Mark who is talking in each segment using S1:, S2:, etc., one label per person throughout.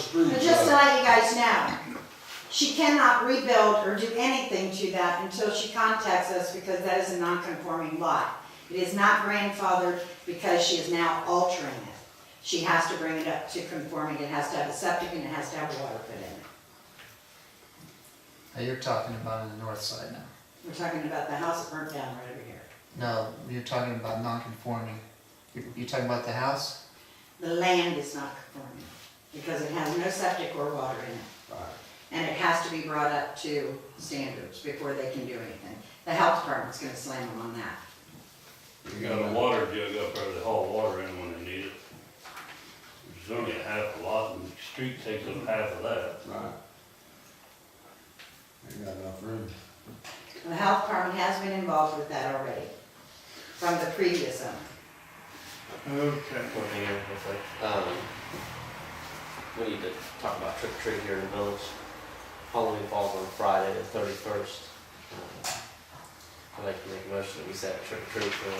S1: screws.
S2: But just to
S1: up.
S2: let you guys know, she cannot rebuild or do anything to that until she contacts us because that is a non-conforming lot. It is not grandfathered because she is now altering it. She has to bring it up to conforming, it has to have a septic and it has to have water put in it.
S3: Now you're talking about on the north side now.
S2: We're talking about the house that burnt down right over here.
S3: No, you're talking about non-conforming. You're, you're talking about the house?
S2: The land is not conforming because it has no septic or water in it.
S1: Right.
S2: And it has to be brought up to standards before they can do anything. The health department's gonna slam them on that.
S4: You got a water jug up there to haul water in when they need it. There's only a half a lot, and the street takes up half of that.
S1: Right. Ain't got enough room.
S2: The health department has been involved with that already, from the previous owner.
S5: Okay.
S6: One thing I was like, um, we need to talk about trick or treat here in the village. Halloween falls on Friday, the thirty-first. Um, I'd like to make a motion that we set trick or treat for,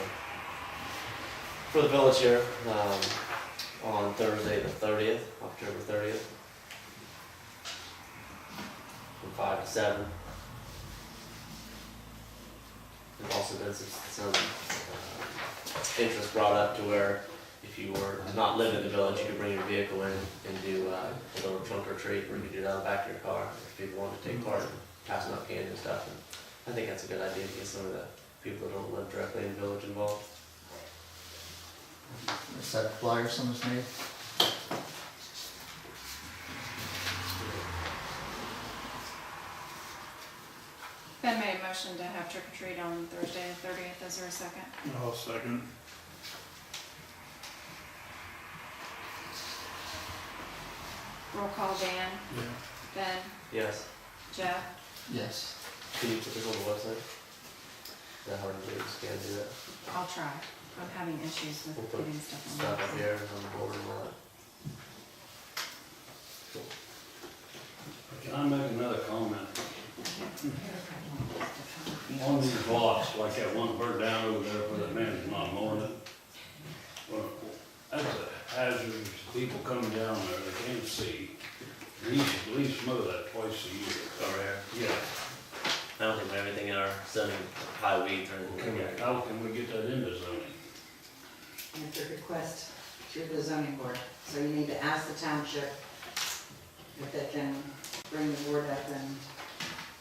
S6: for the village here, um, on Thursday, the thirtieth, October thirtieth. From five to seven. There's also been some, some, uh, interest brought up to where if you were to not live in the village, you could bring your vehicle in and do uh, a little trunk or treat, or you could do it out the back of your car, if people wanted to take part in passing out candy and stuff. And I think that's a good idea to get some of the people that don't live directly in the village involved.
S3: Is that a flyer someone's made?
S7: Ben made a motion to have trick or treat on Thursday the thirtieth, is there a second?
S5: I'll second.
S7: Roll call Dan,
S5: Yeah.
S7: Ben,
S6: Yes,
S7: Jeff,
S3: Yes.
S6: can you put this on the website? Is that hard to do, just can't do that,
S7: I'll try, I'm having issues with putting stuff on.
S6: stuff up
S7: there.
S6: here and on the board and all that.
S4: Can I make another comment? On these blocks, like that one bird down over there where that man's not mowing it. Well, That's a hazard, people coming down there, they can't see. We should at least mow that twice a year.
S6: Over here.
S4: Yeah,
S6: Oh, I don't think we have anything in our zoning, high weeds or anything
S4: can
S6: like
S4: we,
S6: that.
S4: how can we get that into zoning?
S2: And It's a request through the zoning board, so you need to ask the township if they can bring the board up and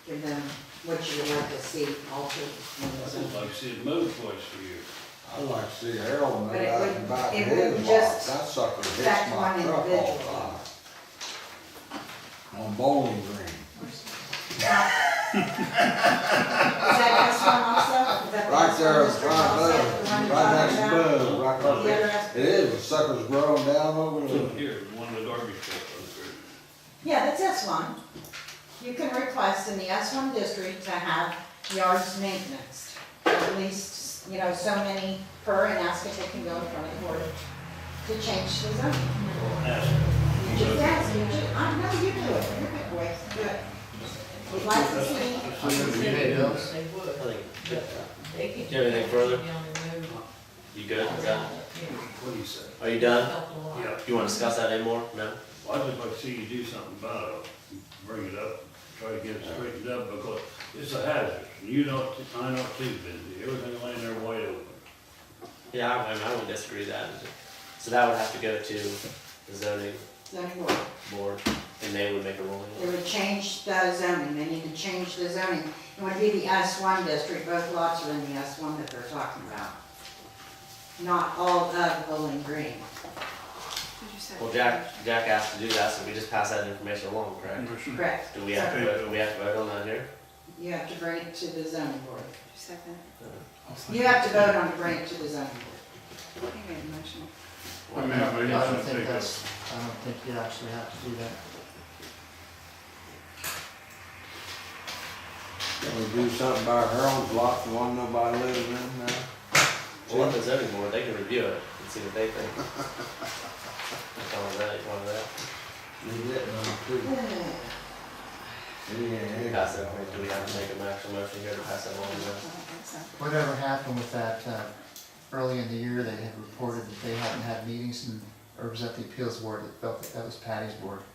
S2: give them what you would like to see altered in the
S4: I
S2: zoning.
S4: think like I said, mow twice a year.
S1: I'd like to see Harold move
S2: But it
S1: out
S2: would-
S1: and back
S2: it
S1: in
S2: would
S1: his box,
S2: just
S1: that sucker hits
S2: affect
S1: my
S2: one
S1: truck all
S2: individual.
S1: the time. On Bowling Green,
S2: Is that this one also? Is that
S1: right
S2: this
S1: there in
S2: one, Mr.
S1: front
S2: Ross,
S1: of
S2: the one
S1: Bud,
S2: you're
S1: right next
S2: talking
S1: to
S2: about?
S1: Bud, right
S2: The
S1: there.
S2: other aspect?
S1: It is, the sucker's growing down over
S4: So
S1: there.
S4: Here, one of the garbage trucks over
S2: Yeah, that's S one. You can request in the S one district to have yards maintenance. At least, you know, so many per and ask if they can go in front of the board to change the zone.
S4: there, ask.
S2: You just ask, you just, I know you do it, you're a good boy, do it. We'd like to see,
S3: You made those?
S8: They
S6: I
S8: would.
S6: think,
S8: They could.
S6: Do you have anything further? you good, is that,
S8: Yeah.
S4: What do you say?
S6: are you done?
S8: Help a lot.
S4: Yeah.
S6: You wanna discuss that anymore? No?
S4: Well, I'd just like to see you do something about it, bring it up, try to get it straightened up, because it's a hazard, and you don't, I don't too, Benji, everything laying there wide open.
S6: Yeah, I, I mean, I wouldn't disagree with that. So that would have to go to the zoning
S2: zoning board.
S6: board, and they would make a ruling.
S2: They would change the zoning, they need to change the zoning. It would be the S one district, both lots are in the S one that they're talking about. Not all of Bowling Green.
S7: Did you say?
S6: Well, Jack, Jack asked to do that, so we just pass that information along, correct?
S2: Mm-hmm.
S5: Motion.
S2: Correct.
S6: Do we have to, vote- do we have to vote on that here?
S2: You have to bring it to the zoning board.
S7: Did you say that?
S2: You have to vote on to bring it to the zoning board.
S7: He made a motion.
S5: I mean, I
S3: I
S5: mean,
S3: don't
S5: I
S3: think
S5: think
S3: that's, I don't think you actually have to do that.
S1: Can we do something by Harold's block, the one nobody lives in now?
S6: Well, let the zoning board, they can review it and see what they think. Tell them that, one of that.
S1: He's getting on too. He ain't- he ain't
S6: Pass that,
S1: got
S6: do we have to make an actual motion here to pass that along?
S7: I don't think so.
S3: Whatever happened with that, uh, early in the year, they had reported that they hadn't had meetings and, or was that the appeals board that felt that that was Patty's board?